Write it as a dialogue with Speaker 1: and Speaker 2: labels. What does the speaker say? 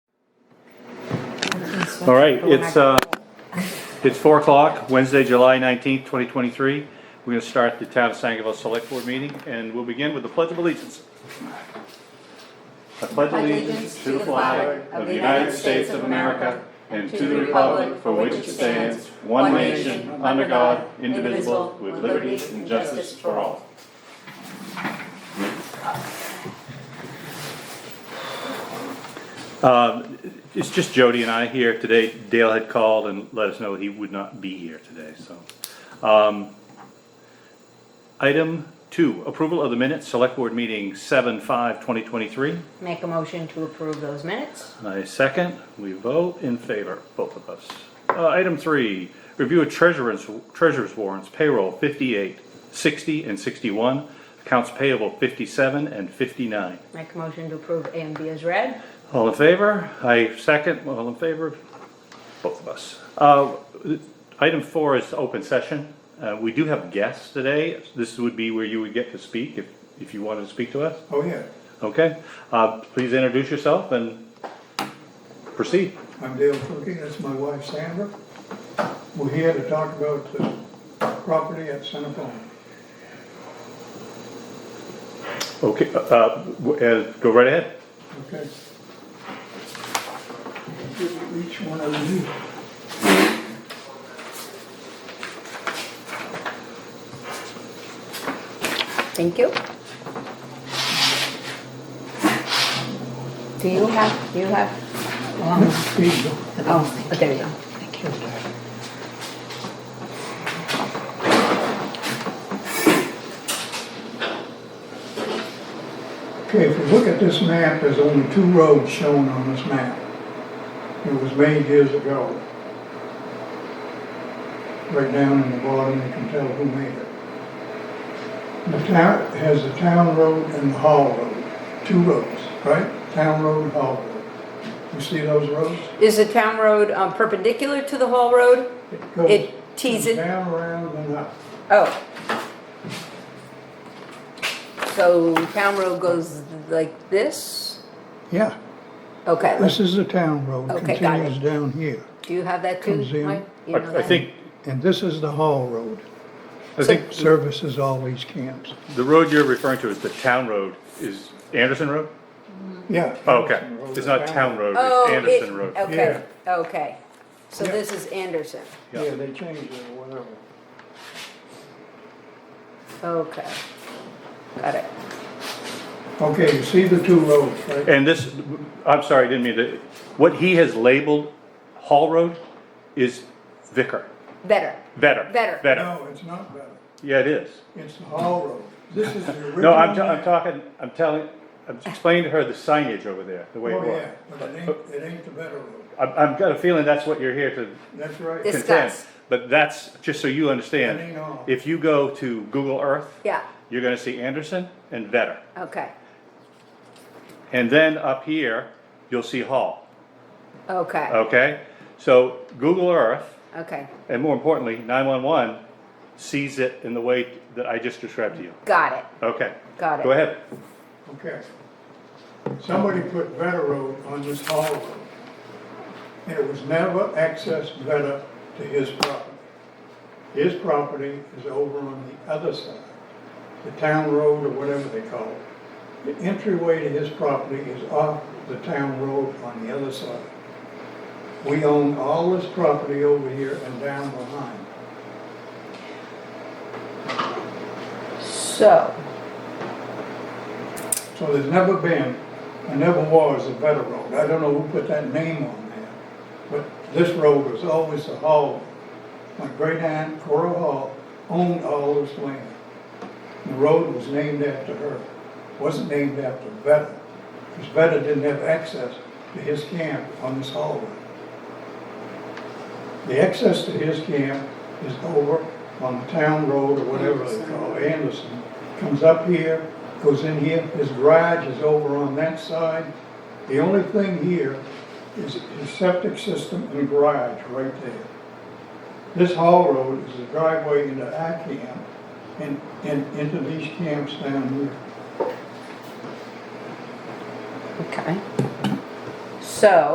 Speaker 1: expensive.
Speaker 2: All right,
Speaker 1: but we're not
Speaker 2: it's,
Speaker 1: gonna-
Speaker 2: uh, it's four o'clock, Wednesday, July nineteenth, twenty twenty-three. We're gonna start the town of Sangerville Select Board meeting, and we'll begin with the Pledge of Allegiance. I pledge allegiance to the flag of the United States of America and to the republic for which it stands, one nation, under God, indivisible, with liberty and justice for all. It's just Jody and I here today. Dale had called and let us know he would not be here today, so. Um, Item two, approval of the minutes, select board meeting seven five twenty twenty-three.
Speaker 1: Make a motion to approve those minutes.
Speaker 2: I second, we vote in favor, both of us. Uh, item three, review of treasurer's, treasurer's warrants, payroll 58, 60, and sixty-one, accounts payable fifty-seven and fifty-nine.
Speaker 1: Make a motion to approve A and B as read.
Speaker 2: All in favor? I second, all in favor? Both of us. Uh, Item four is open session. Uh, We do have guests today. This would be where you would get to speak if, if you wanted to speak to us.
Speaker 3: Oh, yeah.
Speaker 2: Okay, Uh, please introduce yourself and proceed.
Speaker 3: I'm Dale Cookie, that's my wife Sandra. We're here to talk about the property at Centerpoint.
Speaker 2: Okay, uh, uh, w- uh, go right ahead.
Speaker 3: Okay. Give you Each one of you.
Speaker 1: Thank you. Do you have, do you have? um,
Speaker 3: Here you go.
Speaker 1: Oh, there you go. Thank you.
Speaker 3: Okay, if we look at this map, there's only two roads shown on this map. It was made years ago. Right down in the bottom, you can tell who made it. The town has the town road and the hall road, two roads, right? Town road, and hall road. You see those roads?
Speaker 1: Is the town road um, perpendicular to the Hall Road?
Speaker 3: It goes
Speaker 1: It tees it.
Speaker 3: Down, around, and up.
Speaker 1: Oh. So town road goes like this?
Speaker 3: Yeah,
Speaker 1: Okay,
Speaker 3: this is the town road,
Speaker 1: Okay, got it.
Speaker 3: continues down here,
Speaker 1: do you have that too,
Speaker 3: Comes in.
Speaker 1: Mike? You
Speaker 2: I
Speaker 1: know
Speaker 2: I
Speaker 1: that?
Speaker 2: think,
Speaker 3: and this is the hall road.
Speaker 2: I think
Speaker 3: Services all these camps.
Speaker 2: the road you're referring to is the town road, is Anderson Road?
Speaker 3: Yeah.
Speaker 2: Oh, Okay, it's not town road,
Speaker 1: Oh,
Speaker 2: it's
Speaker 1: it-
Speaker 2: Anderson Road.
Speaker 1: Okay, okay. So
Speaker 3: Yeah.
Speaker 1: this is Anderson.
Speaker 2: Yeah.
Speaker 3: Yeah, they changed it or whatever.
Speaker 1: Okay. Got it.
Speaker 3: Okay, you see the two roads, right?
Speaker 2: And this, I'm sorry, I didn't mean to, what he has labeled Hall Road is Vicar,
Speaker 1: Better.
Speaker 2: Vetter.
Speaker 1: Better.
Speaker 2: Vetter,
Speaker 3: No, it's not better.
Speaker 2: yeah, it is.
Speaker 3: It's the Hall Road. This is the original.
Speaker 2: No, I'm, ta- I'm
Speaker 3: map.
Speaker 2: talking, I'm telling, I'm explaining to her the signage over there, the way it
Speaker 3: Oh, yeah,
Speaker 2: was.
Speaker 3: but it ain't, it ain't the better road.
Speaker 2: I've, I've got a feeling that's what you're here to
Speaker 3: That's right.
Speaker 1: This-
Speaker 2: contend,
Speaker 1: Discuss.
Speaker 2: but that's, just so you understand,
Speaker 3: Depending on-
Speaker 2: if you go to Google Earth,
Speaker 1: Yeah,
Speaker 2: you're gonna see Anderson and Vetter.
Speaker 1: okay,
Speaker 2: And then up here, you'll see Hall,
Speaker 1: okay,
Speaker 2: okay? So Google Earth
Speaker 1: okay.
Speaker 2: and more importantly, nine-one-one sees it in the way that I just described to you.
Speaker 1: Got it.
Speaker 2: Okay.
Speaker 1: Got it.
Speaker 2: Go ahead.
Speaker 3: Okay. Somebody put better road on this Hall Road. And it was never accessed better to his property. His property is over on the other side, the town road or whatever they call it. The entryway to his property is off the town road on the other side. We own all this property over here and down behind.
Speaker 1: So,
Speaker 3: So there's never been, and never was, a better road. I don't know who put that name on there, but this road was always the hall. My great aunt Cora Hall owned all this land. The road was named after her, wasn't named after Vetter, because Vetter didn't have access to his camp on this hallway. The access to his camp is over on the town road or whatever they call it, Anderson. Comes up here, goes in here, his garage is over on that side. The only thing here is his septic system and garage right there. This hall road is the driveway into our camp and, and into these camps down here.
Speaker 1: okay. So,